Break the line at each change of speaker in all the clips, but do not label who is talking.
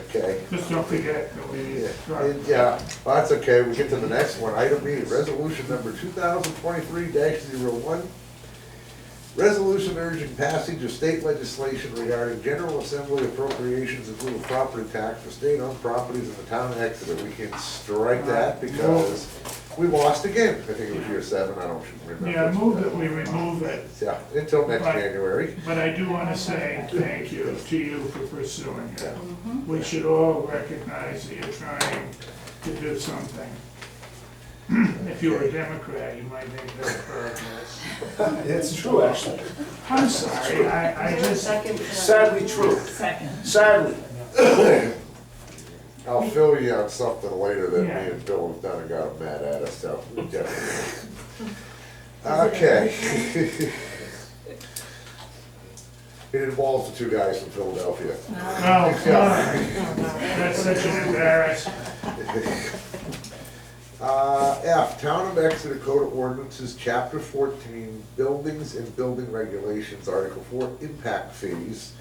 okay.
Just don't forget that we,
Yeah,
right.
it- yeah, well, that's okay, we get to the next one, item B, resolution number two thousand twenty-three one Resolution urging passage of state legislation regarding general assembly appropriations of lieu of property tax for state-owned properties in the town of Exeter. We can strike that because we lost again, I think it was year seven, I don't remember.
yeah, I move that we remove it,
Yeah, until next
Right.
January,
but I do wanna say thank you to you for pursuing it. We should all recognize that you're trying to do something. If you were a Democrat, you might make that progress.
It's true, actually.
I'm sorry, I, I
Is there a
just, oh,
second? uh,
Sadly true.
Second.
Sadly.
I'll fill you on something later that me
Yeah.
and Bill have done and got mad at us, so. yeah. Okay. It involves the two guys from Philadelphia.
no, no, that's such an embarrassment.
Uh, F, Town of Exeter Code of Ordinances, Chapter fourteen, Buildings and Building Regulations, Article four, Impact Fees.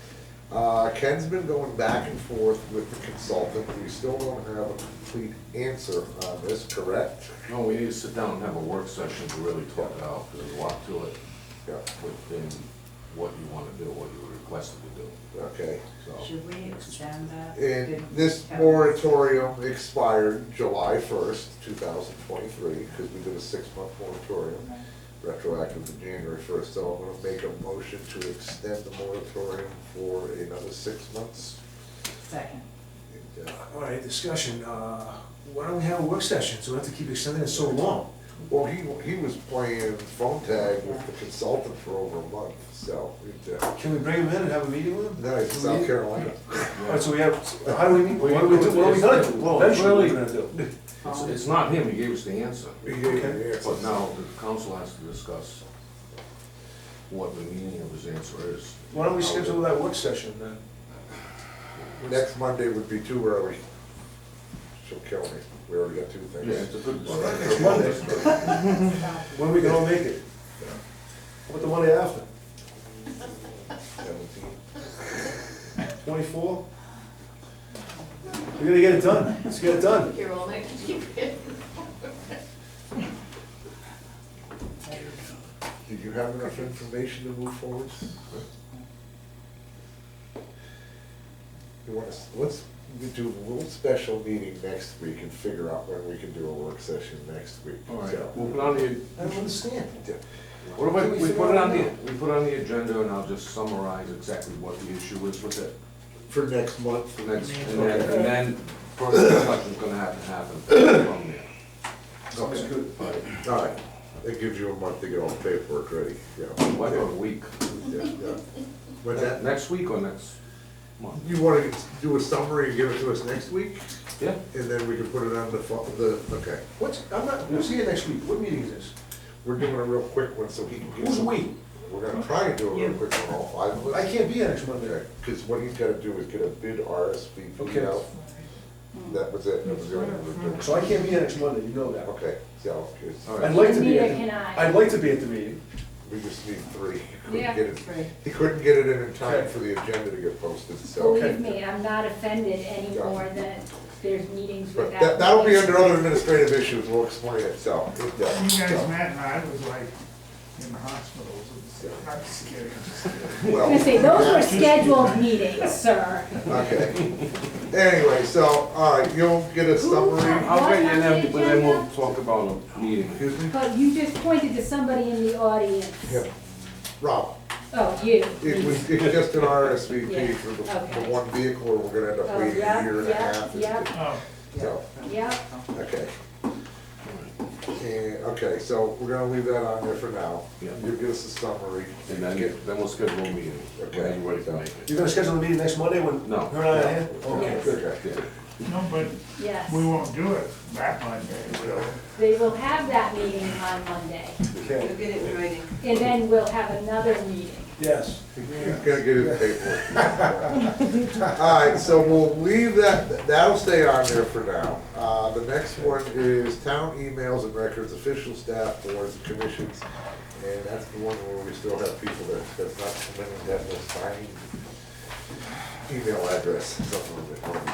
Uh, Ken's been going back and forth with the consultant, we still don't have a complete answer on this, correct?
No, we need to sit down and have a work session to really talk it out, there's a lot to it
Yeah,
within what you wanna do, what you were requested to do,
okay.
so.
Should we extend that?
And
Didn't
Uh, this
have-
moratorium expired July first, two thousand twenty-three, because we did a six-month moratorium retroactive to January first, so I'm gonna make a motion to extend the moratorium for another six months.
Second.
And, uh,
All right, discussion, uh, why don't we have a work session, so we have to keep extending it so long?
Well, he, he was playing phone tag with the consultant for over a month, so, it, uh,
Can we bring him in and have a meeting with him?
no, it's South Carolina.
All right, so we have, how do we, meet? what do we do, what are we gonna do?
Well,
Eventually,
really-
what are we gonna do?
It's, it's not him, he gave us the answer,
He gave me the answer.
but now the council has to discuss what the meaning of his answer is.
Why don't we schedule that work session then?
Next Monday would be too early. She'll kill me, we already got two
Yeah,
things.
it's a good
Well,
discussion.
it's Monday. When we can all make it? How about the Monday after,
Seventeen.
twenty-four? We're gonna get it done, let's get it done.
You're only.
Did you have enough information to move forward? You want us, let's we do a little special meeting next week and figure out when we can do a work session next week.
All
So,
right, we'll put on the,
I don't understand.
what about,
Can we
we
figure
put it
out
on the,
now?
we put it on the agenda and I'll just summarize exactly what the issue is with it.
For next month.
And that's- and then, and then further discussion's gonna have to happen from there.
Sounds good.
All right, that gives you a month to get all the paperwork ready, yeah.
What, a week?
Yeah, yeah. But that,
Next week or next month?
you wanna do a summary and give it to us next week,
Yeah.
and then we can put it on the, fo- the, okay.
What's, I'm not, we'll see you next week, what meeting is this?
We're doing a real quick one so he can get.
Who's
some-
we?
We're gonna try and do a real quick one, all five of us.
I can't be here next Monday.
Because what he's gotta do is get a bid RSVP
Okay.
out. That was it, that was the only thing we were doing.
So I can't be here next Monday, you know that.
Okay, so, it's-
All
I'd
right.
like to be
Neither
at the,
can I.
I'd like to be at the meeting.
we just need three. He couldn't
Yeah,
get it-
three.
He couldn't get it in in time
Okay.
for the agenda to get posted, so.
Believe me, I'm not offended anymore that there's meetings
But
without.
that, that'll be under other administrative issues, we'll explain it, so. it, uh,
You guys
so,
met and I was like in the hospitals and stuff. I'm just kidding.
I was gonna say,
Well,
those were scheduled meetings, sir.
okay. Anyway, so, all right, you'll get a summary.
I'll get you
What's on the
that, but then we'll
agenda?
talk about a meeting.
Excuse me?
But you just pointed to somebody in the audience.
Yeah. Rob,
Oh, you.
it was, it's just an RSVP
Yeah,
for the, the
okay.
one vehicle, and we're gonna end up
Oh,
waiting a
yeah,
year and a
yeah,
half.
yeah.
Oh,
So.
Yep,
Okay. And, okay, so we're gonna leave that on there for now.
Yeah.
You'll give us a summary.
And then,
Get-
then we'll schedule a meeting.
Okay.
Are you ready to make it?
You're gonna schedule a meeting next Monday when
No.
her and I are here? Oh, Okay,
Okay,
good.
okay.
Yeah.
no, but
yes.
we won't do it that Monday, will we?
They will have that meeting on Monday,
You'll
Okay,
get it in writing.
and then we'll have another meeting.
yes.
He's gonna get his paperwork. All right, so we'll leave that, that'll stay on there for now. Uh, the next one is town emails and records, official staff, boards, and commissions. And that's the one where we still have people that have not come in and have no signed email address, something like that.